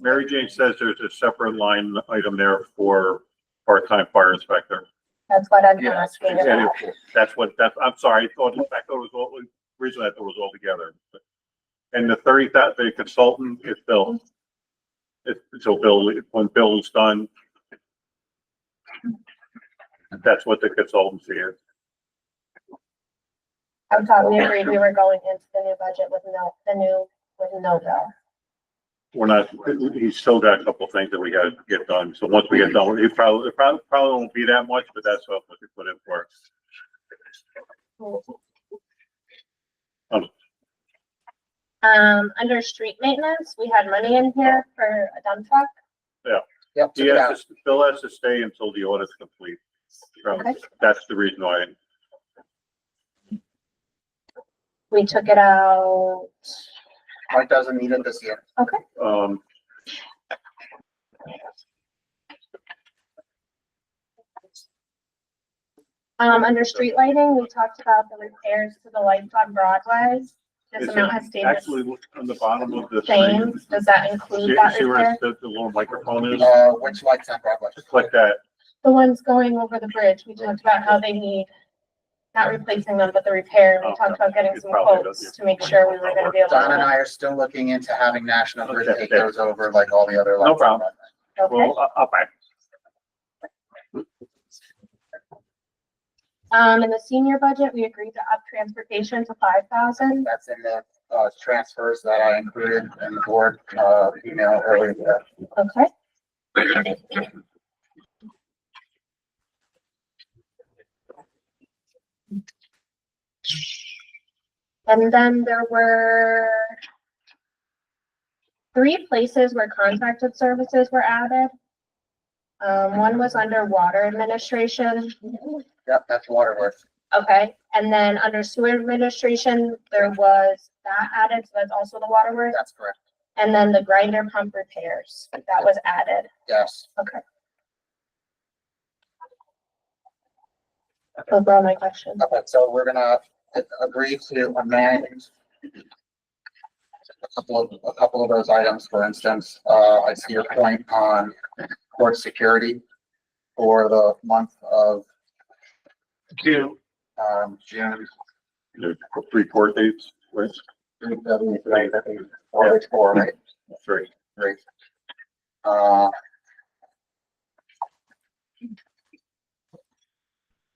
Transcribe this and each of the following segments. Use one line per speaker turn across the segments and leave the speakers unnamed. Mary Jane says there's a separate line item there for part-time fire inspector.
That's what I'm
Yeah.
asking
And
about.
it- that's what, that's, I'm sorry, I thought, I thought it was all, originally I thought it was all together. And the thirty, that, the consultant is Bill. It's, so Bill, when Bill is done, that's what the consultancy is.
I thought we agreed we were going into the new budget with no, the new, with no bill.
We're not, he's still got a couple things that we gotta get done, so once we get done, it probably, it probably, probably won't be that much, but that's what we could put in for.
Um, under street maintenance, we had money in here for a dump truck.
Yep, took
He
it
has
out.
to, Bill has to stay until the audit's complete. Um,
Okay.
That's the reason why,
We took it out.
Mike doesn't need it this year.
um,
Um, under street lighting, we talked about the repairs to the lights on Broadway. This
It's
amount has stayed
actually,
the
look on the bottom of the
same.
thing.
Does that
See
include that
see where
repair?
it's- the, the little microphone is?
Uh, which lights on Broadway?
Mm. Just click that.
The ones going over the bridge, we talked about how they need, not replacing them, but the repair. We
Oh,
talked about getting
it
some
probably
quotes
doesn't.
to make sure we were gonna be able
Don and
to.
I are still looking into having National Grid
Okay,
take
okay.
those over like all the other lights. on
problem.
Broadway.
Okay,
Well, up, up.
um, in the senior budget, we agreed to up transportation to five thousand.
That's in the, uh, transfers that I included in the board, uh, email earlier. today.
Okay. And then there were three places where contracted services were added. Um, one was under water administration,
Yep, that's Waterworth.
okay, and then under sewer administration, there was that added, so that's also the water work.
That's correct.
And then the grinder pump repairs, that was added.
Yes.
Those were all my questions.
Okay, so we're gonna agree to amend a couple of, a couple of those items, for instance, uh, I see your point on court security for the month of June, um, June,
There's three court dates, right?
June, June, June, June, or four, right?
Three.
Great. Uh.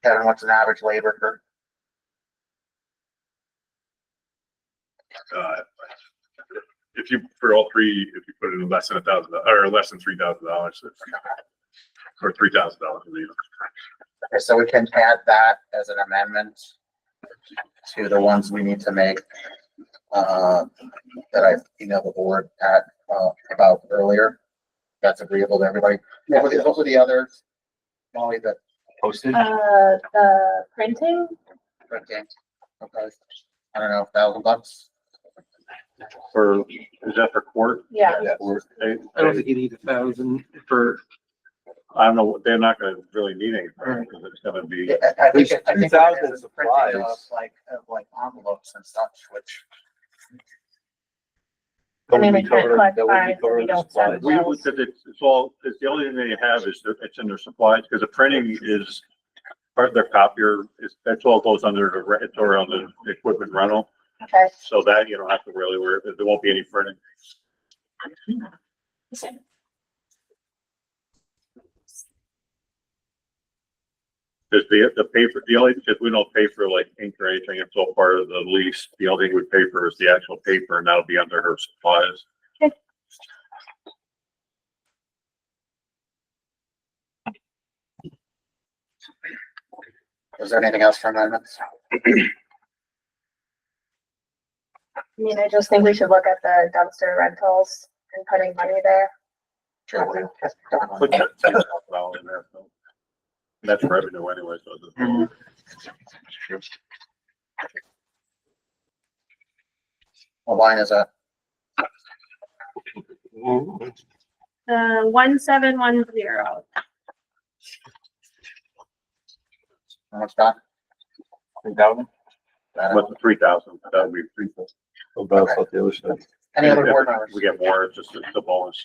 Kevin, what's an average labor for
uh, if you, for all three, if you put it in less than a thousand, or less than three thousand dollars, or three thousand dollars,
Okay, So we can add that as an amendment to the ones we need to make, uh, that I emailed the board at, uh, about earlier. That's agreeable to everybody. What were the, what were the others? Molly, that
posted.
Uh, the printing,
red game. Okay. I don't know, thousand bucks?
For, is that for court?
yeah.
Court date?
I don't think you need a thousand for,
I don't know, they're not gonna really need any, right? 'Cause it's gonna be,
Yeah, I I think, I think
There's
what it
2,000
is, is the printing of
supplies.
like, of like envelopes and such, which
I mean, we can't collect fines if we don't send
we,
bills.
because it's, it's all, it's the only thing they have is that it's in their supplies, because the printing is part of their copier, it's, that's all goes under the, re- it's all under the equipment rental.
Okay,
So that you don't have to really worry, there won't be any printing. Cause the, the paper, the only, because we don't pay for like ink or anything, it's all part of the lease. The only thing we pay for is the actual paper and that'll be under her supplies.
is there anything else for amendments?
I mean, I just think we should look at the dumpster rentals and putting money there.
Sure, we-
Put that $10,000 in there, so. That's revenue anyway, so. it doesn't-
What line is that?
Uh, one seven one zero.
How much that? That is-
But the three thousand, that would be three.
Okay. Any other board members?
We get more, it's just it's the bonus.